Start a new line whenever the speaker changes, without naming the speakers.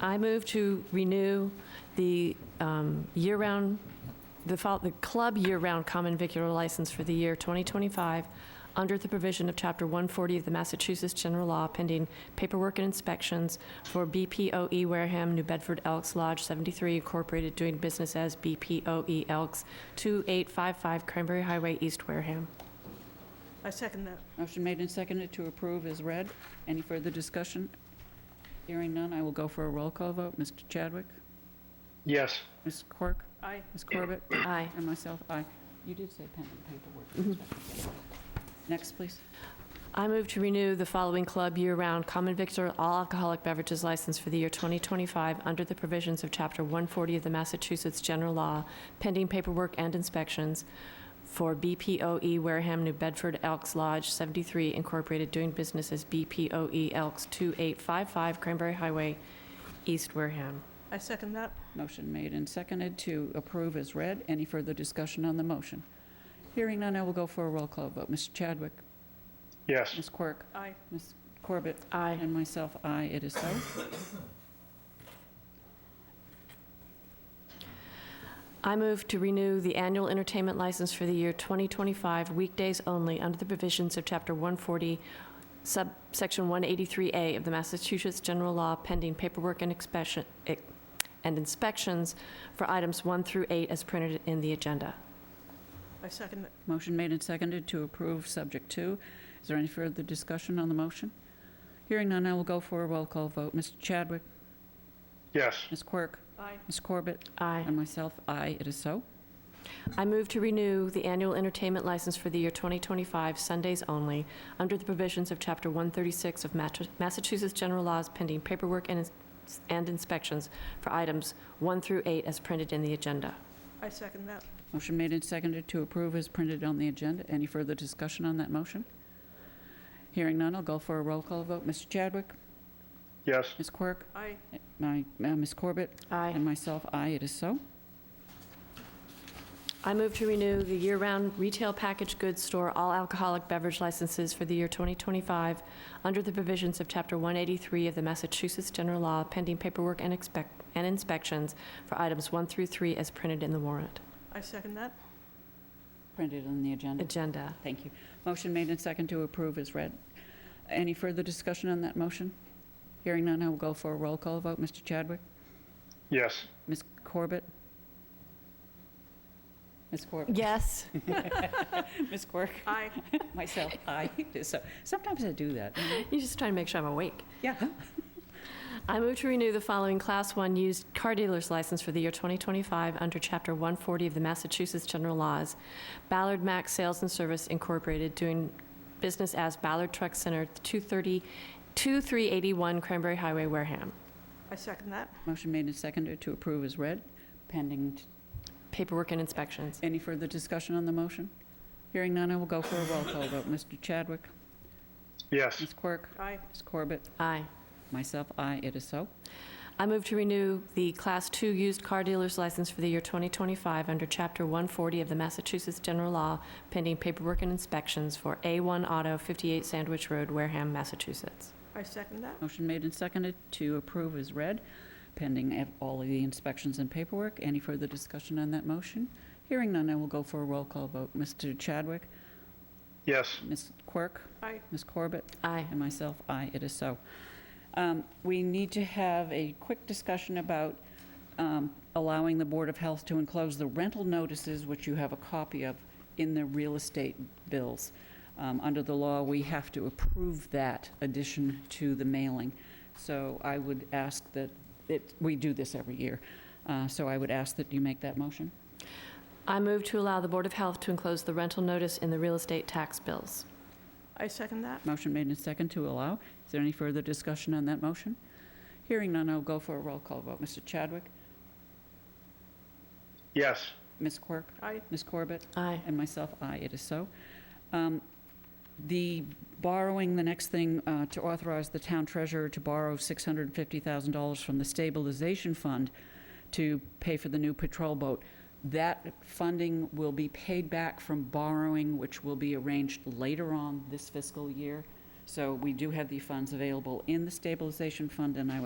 I move to renew the um, year-round, the fol- the club year-round common vicular license for the year 2025 under the provision of Chapter 140 of the Massachusetts General Law pending paperwork and inspections for BPOE E Wareham, New Bedford Elks Lodge 73 Incorporated, doing business as BPOE E Elks, 2855 Cranberry Highway, East Wareham.
I second that.
Motion made and seconded to approve is read. Any further discussion? Hearing none, I will go for a roll call vote. Mr. Chadwick?
Yes.
Ms. Quirk?
Aye.
Ms. Corbett?
Aye.
And myself, aye. You did say pending paperwork. Next, please.
I move to renew the following club year-round common victor all alcoholic beverages license for the year 2025 under the provisions of Chapter 140 of the Massachusetts General Law, pending paperwork and inspections for BPOE E Wareham New Bedford Elks Lodge 73 Incorporated, doing business as BPOE E Elks 2855 Cranberry Highway, East Wareham.
I second that.
Motion made and seconded to approve is read. Any further discussion on the motion? Hearing none, I will go for a roll call vote. Mr. Chadwick?
Yes.
Ms. Quirk?
Aye.
Ms. Corbett?
Aye.
And myself, aye, it is so.
I move to renew the annual entertainment license for the year 2025, weekdays only, under the provisions of Chapter 140, subsection 183A of the Massachusetts General Law, pending paperwork and inspection- eh, and inspections for items 1 through 8 as printed in the agenda.
I second that.
Motion made and seconded to approve subject two. Is there any further discussion on the motion? Hearing none, I will go for a roll call vote. Mr. Chadwick?
Yes.
Ms. Quirk?
Aye.
Ms. Corbett?
Aye.
And myself, aye, it is so.
I move to renew the annual entertainment license for the year 2025, Sundays only, under the provisions of Chapter 136 of Mat- Massachusetts General Laws pending paperwork and ins- and inspections for items 1 through 8 as printed in the agenda.
I second that.
Motion made and seconded to approve is printed on the agenda. Any further discussion on that motion? Hearing none, I'll go for a roll call vote. Mr. Chadwick?
Yes.
Ms. Quirk?
Aye.
eh, My, uh, Ms. Corbett?
Aye.
And myself, aye, it is so.
I move to renew the year-round retail packaged goods store all alcoholic beverage licenses for the year 2025 under the provisions of Chapter 183 of the Massachusetts General Law pending paperwork and expect- and inspections for items 1 through 3 as printed in the warrant.
I second that.
Printed on the agenda.
Agenda.
Thank you. Motion made and second to approve is read. Any further discussion on that motion? Hearing none, I will go for a roll call vote. Mr. Chadwick?
Yes.
Ms. Corbett? Ms. Corbett?
Yes.
Ms. Quirk?
Aye.
Myself, aye. So sometimes I do that. you know?
You're just trying to make sure I'm awake.
Yeah.
I move to renew the following Class 1 used car dealer's license for the year 2025 under Chapter 140 of the Massachusetts General Laws. Ballard Mac Sales and Service Incorporated, doing business as Ballard Truck Center, 230 2381 Cranberry Highway, Wareham.
I second that.
Motion made and seconded to approve is read, pending. t-
Paperwork and inspections.
Any further discussion on the motion? Hearing none, I will go for a roll call vote. Mr. Chadwick?
Yes.
Ms. Quirk?
Aye.
Ms. Corbett?
Aye.
Myself, aye. It is so.
I move to renew the Class 2 used car dealer's license for the year 2025 under Chapter 140 of the Massachusetts General Law, pending paperwork and inspections for A1 Auto, 58 Sandwich Road, Wareham, Massachusetts.
I second that.
Motion made and seconded to approve is read, pending ev- all of the inspections and paperwork. Any further discussion on that motion? Hearing none, I will go for a roll call vote. Mr. Chadwick?
Yes.
Ms. Quirk?
Aye.
Ms. Corbett?
Aye.
And myself, aye, it is so. Um, We need to have a quick discussion about um, allowing the Board of Health to enclose the rental notices, which you have a copy of, in the real estate bills. Um, Under the law, we have to approve that addition to the mailing. So I would ask that, it- we do this every year, Uh, so I would ask that you make that motion.
I move to allow the Board of Health to enclose the rental notice in the real estate tax bills.
I second that.
Motion made and second to allow. Is there any further discussion on that motion? Hearing none, I'll go for a roll call vote. Mr. Chadwick?
Yes.
Ms. Quirk?
Aye.
Ms. Corbett?
Aye.
And myself, aye, it is so. Um, The borrowing, the next thing, uh, to authorize the town treasurer to borrow $650,000 from the stabilization fund to pay for the new patrol boat. That funding will be paid back from borrowing, which will be arranged later on this fiscal year. So we do have the funds available in the stabilization fund, and I would